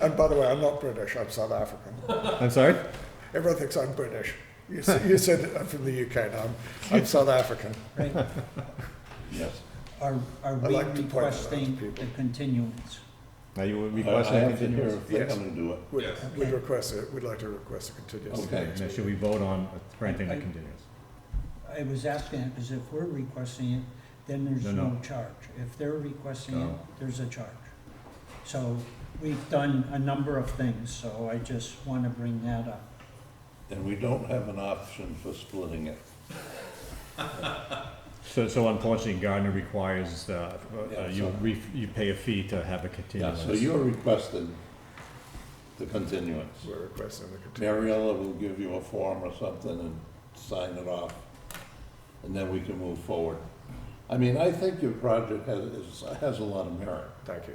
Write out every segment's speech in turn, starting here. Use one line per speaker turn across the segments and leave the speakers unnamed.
And by the way, I'm not British, I'm South African.
I'm sorry?
Everyone thinks I'm British. You, s- you said that I'm from the UK, no, I'm, I'm South African.
Right.
Yes.
Are, are
I
we
like to point that out to
requesting
people.
a continuance?
Now you were
I Uh, I
requesting a
have to hear
continuance?
if they're
Yes.
gonna do it.
We'd,
Yes.
we'd request it, we'd like to request a continuance.
Okay.
Now, Should we vote on granting the
I- I-
continuance?
I was asking that because if we're requesting it, then there's
No, no.
no charge. If they're requesting it,
No.
there's a charge. So we've done a number of things, so I just want to bring that up.
And we don't have an option for splitting it.
So, so unfortunately Gardner requires, uh,
Yeah,
uh, you
so-
re, you pay a fee to have a
Yeah,
continuance.
so you're requesting the continuance.
We're requesting the continuance.
Mariella will give you a form or something and sign it off, and then we can move forward. I mean, I think your project has, is- has a lot of merit,
Thank you.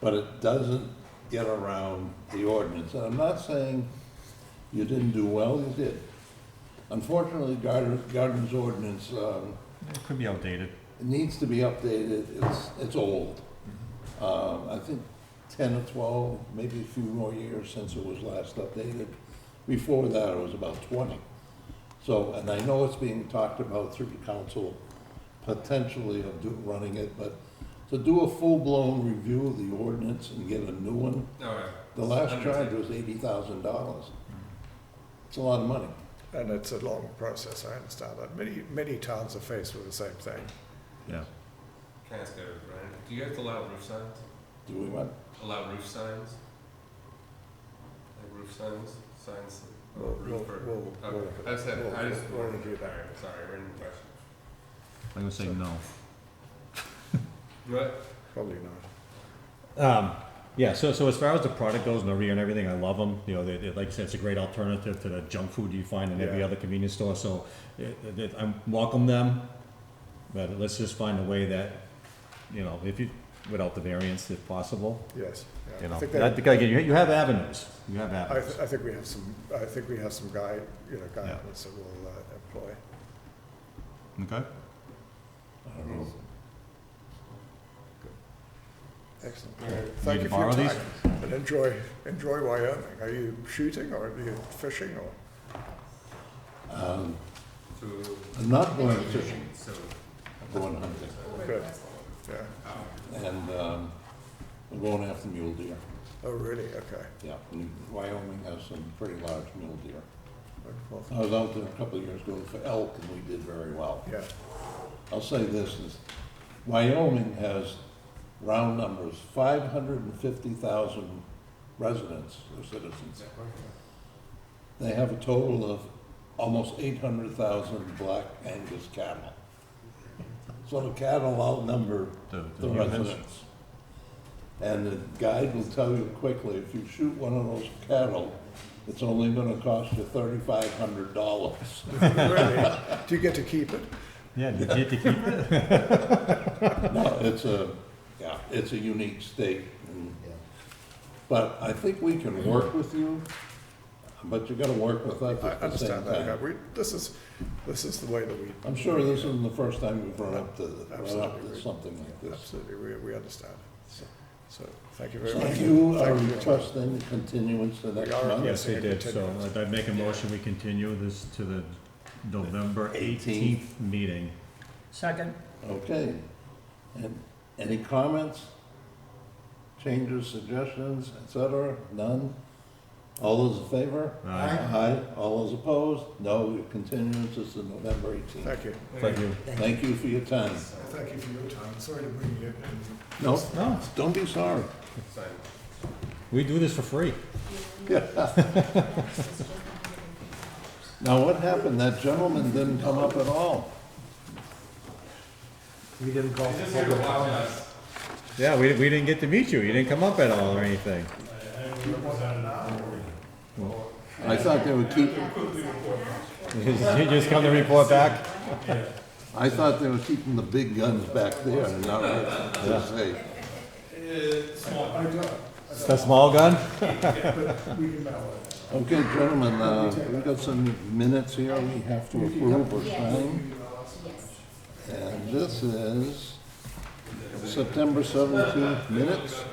but it doesn't get around the ordinance. And I'm not saying you didn't do well, you did. Unfortunately, Gardner, Gardner's ordinance, um,
It could be outdated.
it needs to be updated, it's, it's old. Um, I think ten or twelve, maybe a few more years since it was last updated. Before that, it was about twenty. So, and I know it's being talked about through the council, potentially of do, running it, but to do a full-blown review of the ordinance and get a new one,
All right.
the last
Undertaken.
charge was eighty thousand dollars. It's a lot of money.
And it's a long process, I understand that. Many, many towns are faced with the same thing.
Yeah.
Can I ask uh, Brian, do you guys allow roof signs?
Do we want,
Allow roof signs? Like roof signs, signs, or
We'll-
roof or?
we'll- we'll-
Okay, I just had,
we'll-
I just.
we'll review that.
Alright, Sorry, we're in the question.
I'm gonna say no.
What?
Probably not.
Um, yeah, so, so as far as the product goes, Noria and everything, I love them. You know, they, they, like I said, it's a great alternative to the junk food you find in every
Yeah.
other convenience store. So it, it, I welcome them, but let's just find a way that, you know, if you, without the variance if possible.
Yes. yeah.
You
I
know,
think
that,
that-
again, you, you have avenues. You have
I,
avenues.
th- I think we have some, I think we have some guy, you know,
Yeah.
guidance that we'll uh, employ.
Okay.
I don't know.
Excellent.
All right.
Thank
Need
you
to
for your
borrow these?
time. And enjoy, enjoy Wyoming. Are you shooting or are you fishing or?
Um,
To.
I'm not going fishing,
So.
I'm going hunting.
Good. Yeah.
and um, we're going after mule deer.
Oh, really? Okay.
Yeah, and Wyoming has some pretty large mule deer. I
Wonderful.
was out there a couple of years ago for elk, and we did very well.
Yeah.
I'll say this is, Wyoming has round numbers, five hundred and fifty thousand residents or citizens. They have a total of almost eight hundred thousand black Angus cattle. So the cattle outnumber
The,
the residents. And the guide will tell you quickly, if you shoot one of those cattle, it's only gonna cost you thirty-five hundred dollars.
Really? Do you get to keep it?
Yeah, you get to keep it.
No, it's a, yeah, it's a unique state. and- But I think we can work with you, but you gotta work with us
I
at the same
understand that. Yeah,
time.
we, this is, this is the way that we.
I'm sure this isn't the first time we've run up to, run up
Absolutely.
to something like this.
Absolutely. We, we understand. So, so thank you very
So
much.
you uh, are
Thank you.
requesting continuance the next
are,
month?
Yes, they did. So I'd- I'd make a motion, we continue this to the November eighteenth meeting.
Second,
Okay. And any comments, changes, suggestions, et cetera? None? All those in favor?
Aye.
Aye. All those opposed? No, your continuance is to November 18th.
Thank you.
Thank you.
Thank you for your time.
Thank you for your time. Sorry to bring you in.
No,
No,
don't be sorry.
Sign.
we do this for free.
Now, what happened? That gentleman didn't come up at all.
We didn't call
He's just
for
here to
public
watch
comment.
us.
Yeah, we, we didn't get to meet you. You didn't come up at all or anything.
I thought they would keep,
You just come to report back?
I thought they were keeping the big guns back there and not this way.
The small gun?
Okay, gentlemen, uh, we've got some minutes here we have to approve or sign. And this is September 17th minutes.